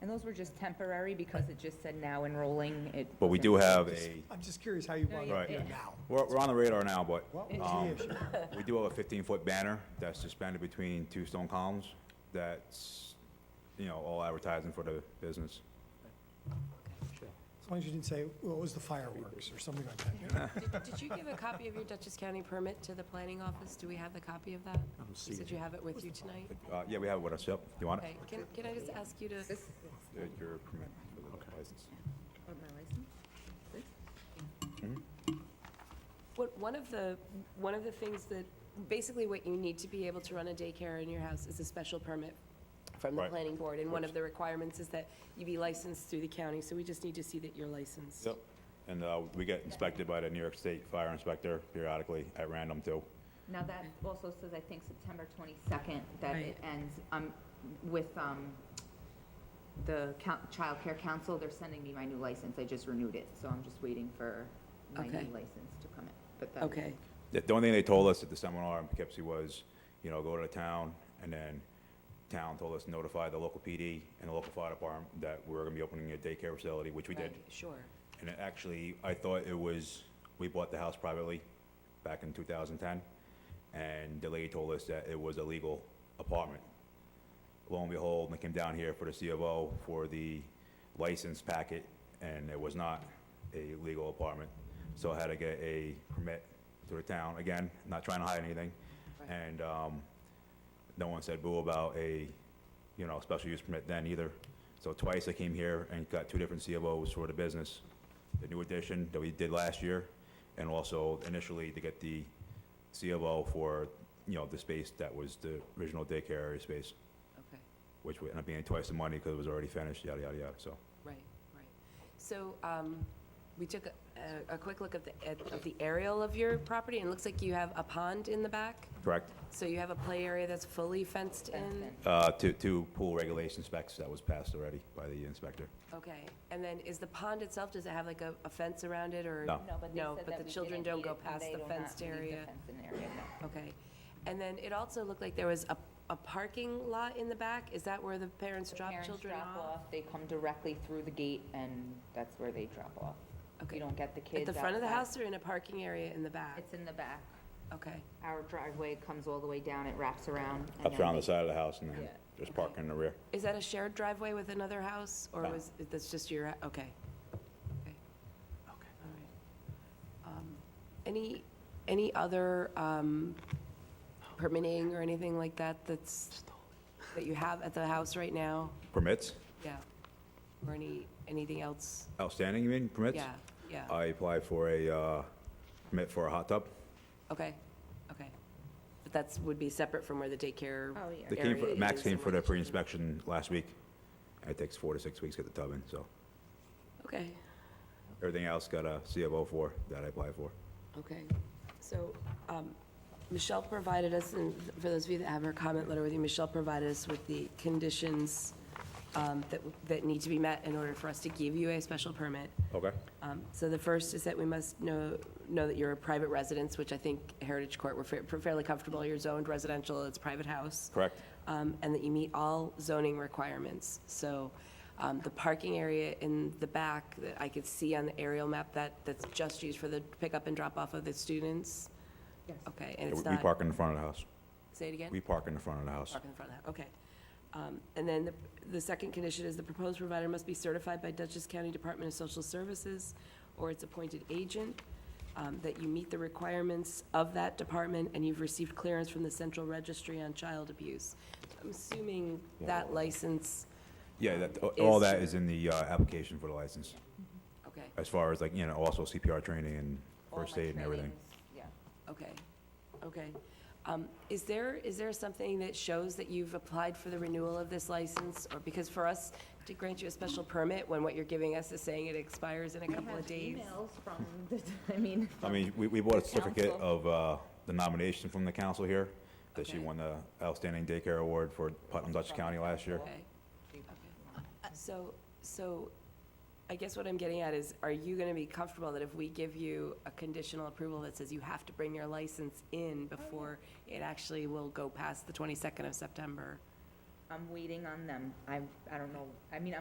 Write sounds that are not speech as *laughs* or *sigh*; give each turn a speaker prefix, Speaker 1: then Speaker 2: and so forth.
Speaker 1: And those were just temporary because it just said now enrolling. It
Speaker 2: But we do
Speaker 1: wasn't-
Speaker 2: have a,
Speaker 3: I'm just curious how you
Speaker 1: No,
Speaker 3: want
Speaker 1: you-
Speaker 3: to
Speaker 2: Right.
Speaker 3: do
Speaker 1: yeah.
Speaker 3: it now.
Speaker 2: we're, we're on the radar now, but,
Speaker 3: What was
Speaker 2: um,
Speaker 3: the issue?
Speaker 2: we do have a fifteen-foot banner that's suspended between two stone columns that's, you know, all advertising for the business.
Speaker 3: As long as you didn't say, well, it was the fireworks or something like that. you know?
Speaker 4: Did- Did you give a copy of your Dutchess County permit to the planning office? Do we have the copy of that? You said you have it with you tonight?
Speaker 2: Uh, yeah, we have it with us, yep. You want it?
Speaker 4: Okay, can, can I just ask you to,
Speaker 1: This-
Speaker 2: Uh, Your permit for the license.
Speaker 1: oh, my license? This?
Speaker 4: what, one of the, one of the things that, basically what you need to be able to run a daycare in your house is a special permit from the
Speaker 2: Right.
Speaker 4: planning board, and one of the requirements is that you be licensed through the county, so we just need to see that you're licensed.
Speaker 2: Yep. And, uh, we get inspected by the New York State Fire Inspector periodically at random too.
Speaker 5: Now, that also says, I think, September 22nd, that
Speaker 4: Right.
Speaker 5: it ends um, with um, the coun- Child Care Council. They're sending me my new license. I just renewed it, so I'm just waiting for my new
Speaker 4: Okay.
Speaker 5: license to come in. But that-
Speaker 4: Okay,
Speaker 2: The the only thing they told us at the seminar in Poughkeepsie was, you know, go to the town, and then town told us notify the local PD and the local fire department that we're gonna be opening a daycare facility, which we did.
Speaker 4: right, sure.
Speaker 2: And it actually, I thought it was, we bought the house privately back in 2010, and the lady told us that it was a legal apartment. Lo and behold, when I came down here for the C of O for the license packet, and it was not a legal apartment. So I had to get a permit through the town, again, not trying to hide anything.
Speaker 4: Right.
Speaker 2: And um, no one said boo about a, you know, special use permit then either. So twice I came here and got two different C of Os for the business, the new addition that we did last year, and also initially to get the C of O for, you know, the space that was the original daycare area space,
Speaker 4: Okay.
Speaker 2: which would end up being twice the money because it was already finished, yada, yada, yada, so.
Speaker 4: Right, right. So um, we took a- a, a quick look at the, at of the aerial of your property, and it looks like you have a pond in the back.
Speaker 2: Correct?
Speaker 4: So you have a play area that's fully fenced in?
Speaker 2: Uh, To, to pool regulation specs that was passed already by the inspector.
Speaker 4: Okay. And then is the pond itself, does it have like a, a fence around it, or?
Speaker 2: No.
Speaker 5: but they
Speaker 4: No,
Speaker 5: said
Speaker 4: but
Speaker 5: that
Speaker 4: the
Speaker 5: we
Speaker 4: children
Speaker 5: didn't
Speaker 4: don't
Speaker 5: need
Speaker 4: go
Speaker 5: it, and
Speaker 4: past
Speaker 5: they
Speaker 4: the
Speaker 5: do not
Speaker 4: fenced
Speaker 5: leave the
Speaker 4: area?
Speaker 5: fenced-in area, no.
Speaker 4: Okay. And then it also looked like there was a, a parking lot in the back? Is that where the parents drop
Speaker 5: Parents
Speaker 4: children
Speaker 5: drop
Speaker 4: off?
Speaker 5: They come directly through the gate, and that's where they drop off.
Speaker 4: Okay.
Speaker 5: You don't get the
Speaker 4: At
Speaker 5: kids
Speaker 4: the front of the
Speaker 5: outside.
Speaker 4: house or in a parking area in the back?
Speaker 5: It's in the back.
Speaker 4: Okay.
Speaker 5: Our driveway comes all the way down, it wraps around. and
Speaker 2: Up
Speaker 5: then
Speaker 2: around
Speaker 5: they-
Speaker 2: the side of the house and then
Speaker 5: Yeah.
Speaker 2: just parking in the rear.
Speaker 4: Is that a shared driveway with another house, or
Speaker 2: No.
Speaker 4: was, that's just your, okay. Okay. All right. Um, Any, any other um, permitting or anything like that that's, that you have at the house right now?
Speaker 2: Permits?
Speaker 4: Yeah. Or any, anything else?
Speaker 2: Outstanding, you mean, permits?
Speaker 4: Yeah, yeah.
Speaker 2: I applied for a uh, permit for a hot tub.
Speaker 4: Okay, okay. But that's, would be separate from where the daycare
Speaker 1: Oh, yeah.
Speaker 2: They came for,
Speaker 4: area
Speaker 2: Max
Speaker 4: is and
Speaker 2: came for
Speaker 4: where
Speaker 2: the
Speaker 4: children-
Speaker 2: pre-inspection last week. It takes four to six weeks to get the tub in, so
Speaker 4: Okay.
Speaker 2: everything else got a C of O for that I applied for.
Speaker 4: Okay, so um, Michelle provided us, and for those of you that have her comment letter with you, Michelle provided us with the conditions um, that, that need to be met in order for us to give you a special permit.
Speaker 2: Okay.
Speaker 4: Um, So the first is that we must know, know that you're a private residence, which I think Heritage Court, we're fa- fairly comfortable, you're zoned residential, it's private house
Speaker 2: Correct.
Speaker 4: um, and that you meet all zoning requirements. So um, the parking area in the back that I could see on the aerial map, that, that's just used for the pickup and drop-off of the students? Yes. Okay, and
Speaker 2: Yeah, We
Speaker 4: it's
Speaker 2: we
Speaker 4: not,
Speaker 2: park in the front of the house.
Speaker 4: say it again?
Speaker 2: We park in the front of the house.
Speaker 4: Park in the front of that, okay. Um, And then the, the second condition is the proposed provider must be certified by Dutchess County Department of Social Services or its appointed agent, um, that you meet the requirements of that department and you've received clearance from the Central Registry on Child Abuse. I'm assuming that license,
Speaker 2: Yeah, that,
Speaker 4: Um,
Speaker 2: all
Speaker 4: is-
Speaker 2: that is in the uh, application for the license,
Speaker 4: okay,
Speaker 2: as far as like, you know, also CPR training and
Speaker 5: all
Speaker 2: first
Speaker 5: my
Speaker 2: aid and everything.
Speaker 5: trainings, Yeah.
Speaker 4: okay, okay. Um, Is there, is there something that shows that you've applied for the renewal of this license? Or because for us to grant you a special permit when what you're giving us is saying it expires in a couple of days?
Speaker 5: We have emails from, the *laughs* I mean.
Speaker 2: I mean, we, we bought a
Speaker 5: The
Speaker 2: certificate
Speaker 5: council.
Speaker 2: of uh, the nomination from the council here, that she
Speaker 4: Okay.
Speaker 2: won the outstanding daycare award for Putnam Dutchess County last year.
Speaker 4: Okay, okay. So, so I guess what I'm getting at is, are you going to be comfortable that if we give you a conditional approval that says you have to bring your license in
Speaker 5: Oh,
Speaker 4: before it actually will go past the 22nd of September?
Speaker 5: I'm waiting on them. I, I don't know. I mean,